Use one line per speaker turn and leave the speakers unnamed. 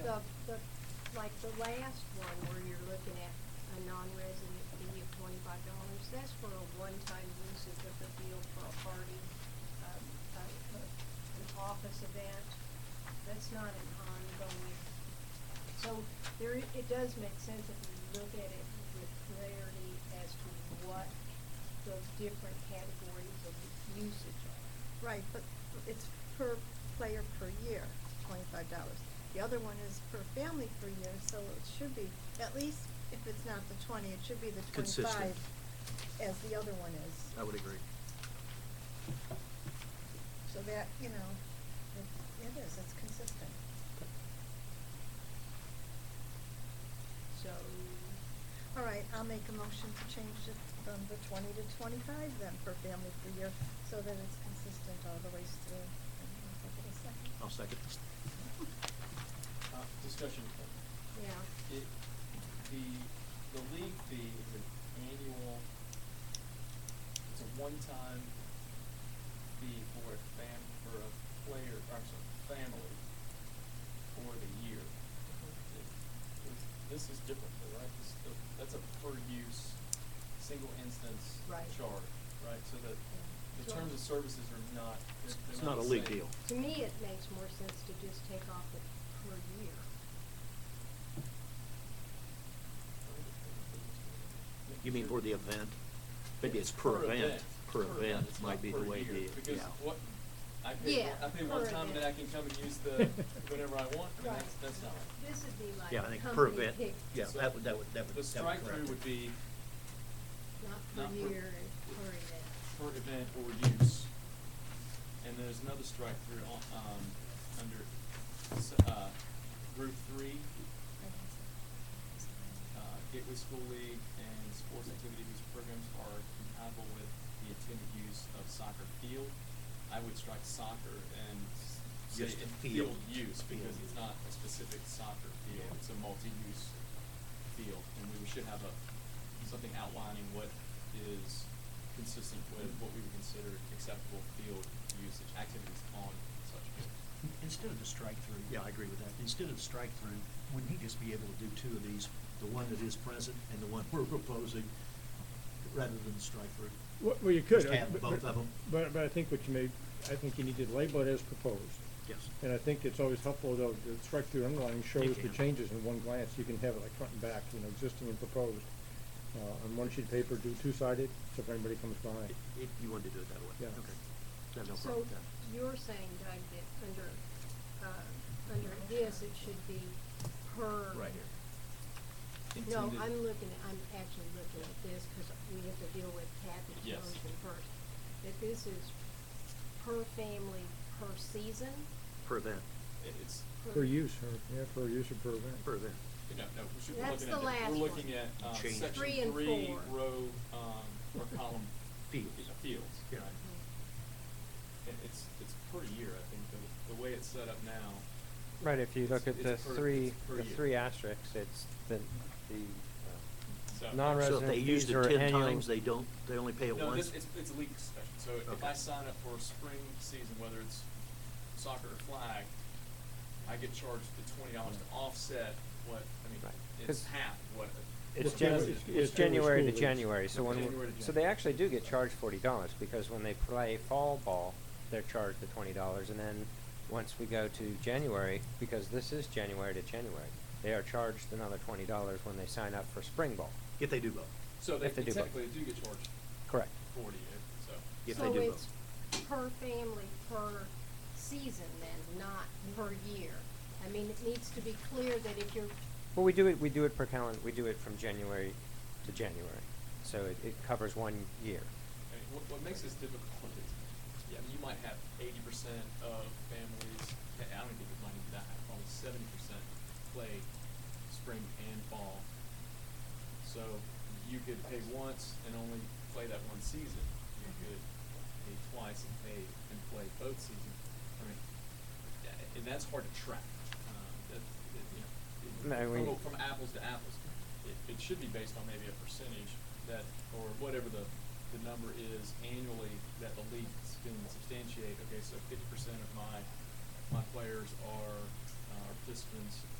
the, the, like the last one where you're looking at a non-resident fee of twenty-five dollars, that's for a one-time usage of the field for a party, um, a, a, an office event. That's not an ongoing. So there, i- it does make sense if you look at it with clarity as to what those different categories of usage are.
Right, but it's per player per year, twenty-five dollars. The other one is per family per year, so it should be, at least if it's not the twenty, it should be the
Consistent.
twenty-five as the other one is.
I would agree.
So that, you know, it, it is, it's consistent.
So,
All right, I'll make a motion to change it from the twenty to twenty-five then per family per year, so that it's consistent all the way through.
I'll second.
Uh, Discussion.
yeah.
It, the, the league fee is an annual, it's a one-time fee for a fam, for a player, or I'm sorry, family for the year. It- it's- This is different, though, right? This, the- that's a per-use, single instance
Right.
charge, right? So that the
So-
terms of services are not, they're, they're
It's not a
the
league
same.
deal.
To me, it makes more sense to just take off the per year.
You mean for the event? Maybe it's per event. Per event
it's
might
not
be the
per
way
year,
the,
Because
yeah.
what, I pay,
Yeah,
I pay
per
one time and then I can
event.
come and use the, whenever I want, I mean,
Right.
that's, that's not. right.
This would be like
Yeah, I think per
company
event,
pick,
yeah,
So
that would, that would, that would.
The
that would
strike-through
correct
would
it.
be
not
not
per
per-
year and per event.
per event or use. And there's another strike-through on, um, under, s- uh, group three, uh, Gateway School League and sports activity whose programs are compatible with the intended use of soccer field. I would strike soccer and s- say
Just
in
field.
field use because
Field.
it's not a specific soccer field,
Yeah.
it's a multi-use field. And we should have a, something outlining what is consistent with what we would consider acceptable field usage, activities on such field.
Instead of the strike-through.
Yeah, I agree with that.
Instead of the strike-through, wouldn't he just be able to do two of these, the one that is present and the one we're proposing, rather than the strike-through?
Well, well, you could.
Just
I-
have
but-
both
but-
of 'em.
But, but I think what you may, I think you need to label it as proposed.
Yes.
And I think it's always helpful, though, the strike-through underline shows the
can.
changes in one glance. You can have it like front and back, you know, existing and proposed. Uh, on one sheet of paper, do two-sided, so if anybody comes by.
It- it- You wanted to do it that way?
Yeah.
Okay. I have no problem
So
with that.
you're saying, Doug, that under, uh, under this, it should be per.
Right here.
No,
Intended-
I'm looking, at- I'm actually looking at this because we have to deal with Kathy
Yes.
Jones first. That this is per family, per season,
Per event,
It- It's,
Per use, or, yeah, per use or per event.
per event.
No, no, we should be
That's
looking
the
at,
last
that. we're looking
one.
at, um,
Change.
section
Three and
three,
four.
row, um, or column.
Fields.
yeah, Fields,
Yeah.
right. It, it's, it's per year, I think, the, the way it's set up now.
Right, if you look
It's-
at the
it's per-
three,
it's per
the
year.
three asterisks, it's the, the
So-
uh, non-resident fees are annual.
So if they used it ten times, they don't, they only pay it
No,
once?
this, it's, it's a league discussion, so if
Okay.
I sign up for a spring season, whether it's soccer or flag, I get charged the twenty dollars to offset what, I mean,
Right.
it's
'Cause
half what. a-
It's
Well,
Jan,
it's- it's
it's
January
January
school
to
leagues.
January, so when,
January
we-
to
so they
January.
actually do get charged forty dollars, because when they play fall ball, they're charged the twenty dollars, and then once we go to January, because this is January to January, they are charged another twenty dollars when they sign up for spring ball.
If they do both.
So they
if they do both.
technically do get charged
Correct.
forty, uh, so.
If they do both.
So it's per family, per season then, not per year. I mean, it needs to be clear that if you're,
Well, we do it, we do it per calendar, we do it from January to January, so it, it covers one year.
I mean, what, what makes this difficult is, yeah, I mean, you might have eighty percent of families, I I don't think it might even be that high, probably seventy percent play spring and fall. So you could pay once and only play that one season. You could pay twice and pay and play both seasons. I mean, yeah, uh, and that's hard to track. Um, that, that, you know, it-
No, we-
from, from apples to apples. It, it should be based on maybe a percentage that, or whatever the, the number is annually that the league can substantiate. Okay, so fifty percent of my, my players are, uh, or participants